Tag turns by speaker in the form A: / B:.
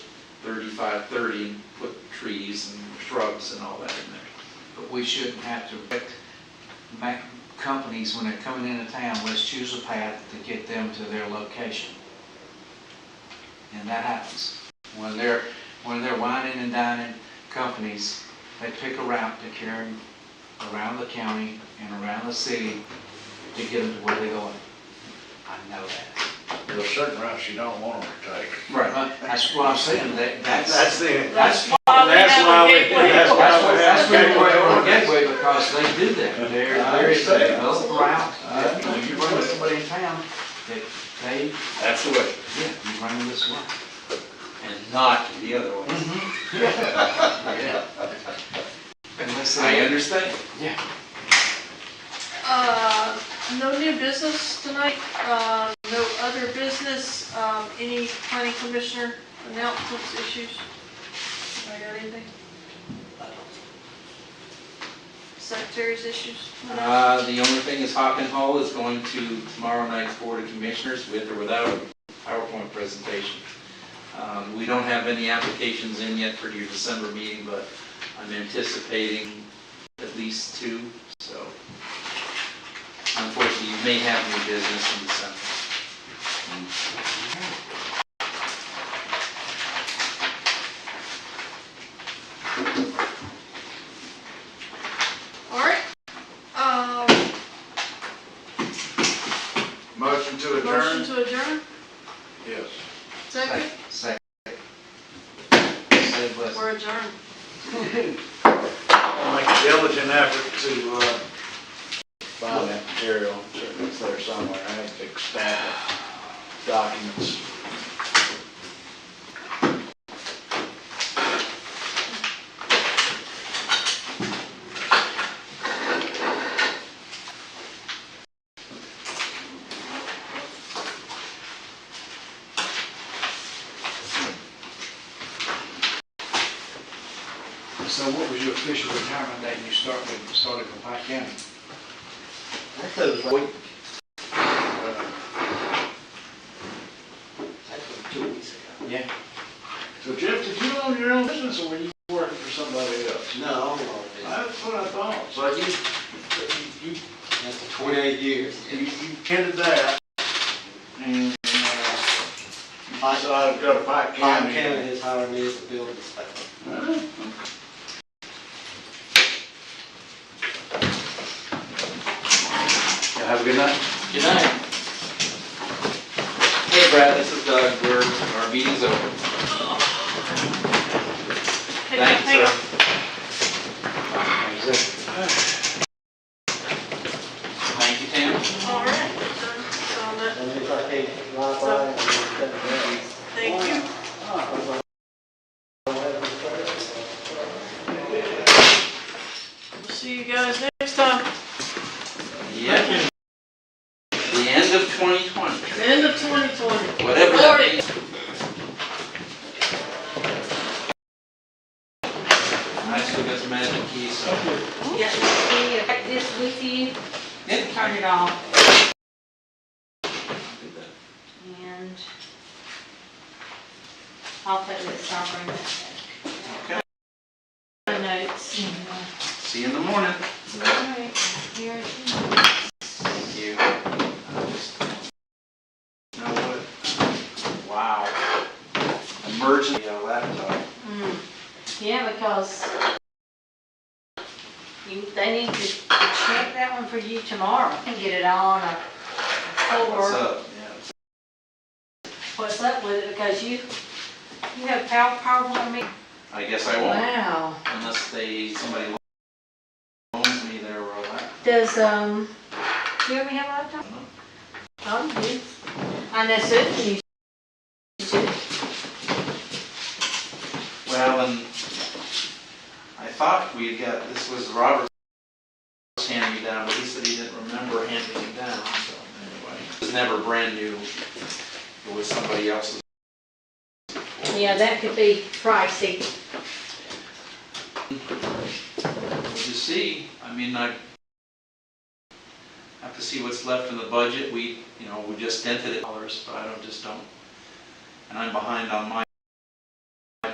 A: thirty-five thirty and put trees and shrubs and all that in there.
B: But we shouldn't have to direct ma companies when they're coming into town, let's choose a path to get them to their location. And that happens. When they're, when they're whining and dining companies, they pick a route to carry them around the county and around the city to get them to where they're going. I know that.
C: There's certain routes you don't want them to take.
B: Right. That's what I'm saying, that, that's.
C: the.
B: That's
C: That's why we-
B: That's why, that's why
C: Gateway.
B: we're on Gateway, because they do that. There,
C: I
B: there is a
C: understand.
B: developed route,
C: I
B: that when you run
C: understand.
B: with somebody in town, that they,
C: That's the way.
B: yeah, you run this way.
A: And not the other way.
B: Yeah. Unless
A: I
B: they,
A: understand.
B: yeah,
D: Uh, No new business tonight, uh, no other business, um, any planning commissioner announcements, issues? I got anything? Secretary's issues?
A: Uh, the only thing is Hawken Hall is going to tomorrow night's Board of Commissioners with or without a PowerPoint presentation. Um, we don't have any applications in yet for your December meeting, but I'm anticipating at least two, so. Unfortunately, you may have new business in December.
D: All right, um,
C: Motion to
D: motion to adjourn,
C: Yes.
D: second,
B: say, say, but.
D: or adjourn?
C: I'll make a diligent effort to, uh, find that material, it's there somewhere, I have to extend documents.
B: So what was your official retirement date you started, started with Pike County?
E: I thought it was like, I thought two weeks ago.
B: Yeah.
C: So Jeff, did you own your own business or were you working for somebody else?
E: No,
C: That's what I thought, so you, you,
E: after 28 years.
C: you, you tended that. And, uh, so I've got a bike
E: Pine
C: county.
E: County has hired me as a building inspector.
C: Huh?
A: Good night. Hey Brad, this is Doug, we're, our meeting's over.
D: Hey, hang on.
A: Thank you, Tim.
D: All right, done. So on that,
E: And it's like a Wi-Fi and everything else.
D: thank you. We'll See you guys next time,
A: Yeah. The end of 2020,
D: end of 2020.
A: whatever that
D: Lordy.
A: means. I still got some magic keys, so.
F: Yeah, see, if this with you,
A: Yeah.
F: turn it off and I'll put this on for a minute. My notes.
A: See you in the morning.
F: Alright, here it is.
A: Thank you. I just- Know what? Wow. Emergency uh, laptop.
F: Mm. Yeah, because you, they need to check that one for you tomorrow and get it on a
A: What's
F: floor.
A: up? Yeah.
F: What's up with it? Because you, you have power, power on me.
A: I guess I won't
F: Wow.
A: unless they, somebody loans me their uh, laptop.
F: Does, um, do you ever have a laptop? Oh, you do. I know Susan used to.
A: Well, and I thought we had got, this was Robert's hand me down, but he said he didn't remember handing it down, so anyway. It was never brand new. It was somebody else's.
F: Yeah, that could be pricey.
A: We'll just see. I mean, I have to see what's left in the budget. We, you know, we just dented it dollars, but I don't, just don't. And I'm behind on my